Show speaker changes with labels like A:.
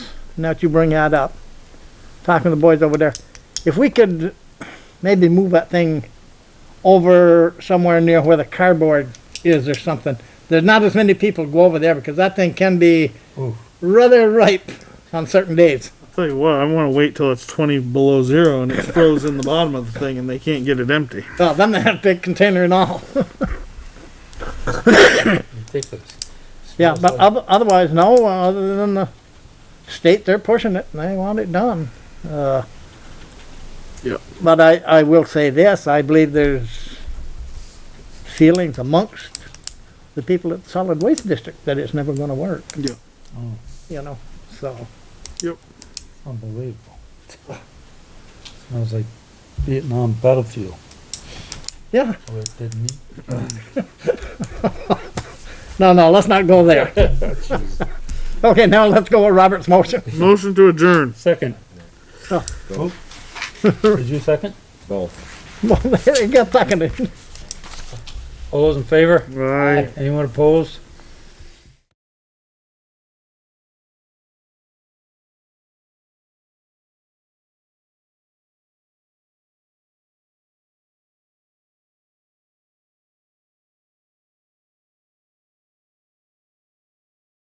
A: now that you bring that up, talking to the boys over there, if we could maybe move that thing over somewhere near where the cardboard is or something. There's not as many people go over there because that thing can be rather ripe on certain days.
B: Tell you what, I want to wait till it's 20 below zero and it's frozen in the bottom of the thing and they can't get it empty.
A: Oh, then they have a big container and all.
C: Ridiculous.
A: Yeah,
C: Smells
A: but
C: like-
A: oth- otherwise, no, uh, other than the state, they're pushing it and they want it done. Uh,
B: Yep.
A: But I, I will say this, I believe there's feelings amongst the people at Solid Waste District that it's never gonna work.
B: Yeah.
C: Mm.
A: You know, so,
C: Unbelievable. Smells like Vietnam battlefield.
A: yeah,
C: Oh, it didn't eat.
A: no, no, let's not go there. Okay, now let's go with Robert's motion.
B: Motion to adjourn.
C: Second.
A: Oh.
C: Oh. Did you second?
D: Both.
A: Well, it got seconded.
C: All those in favor?
B: Aye.
C: Anyone opposed?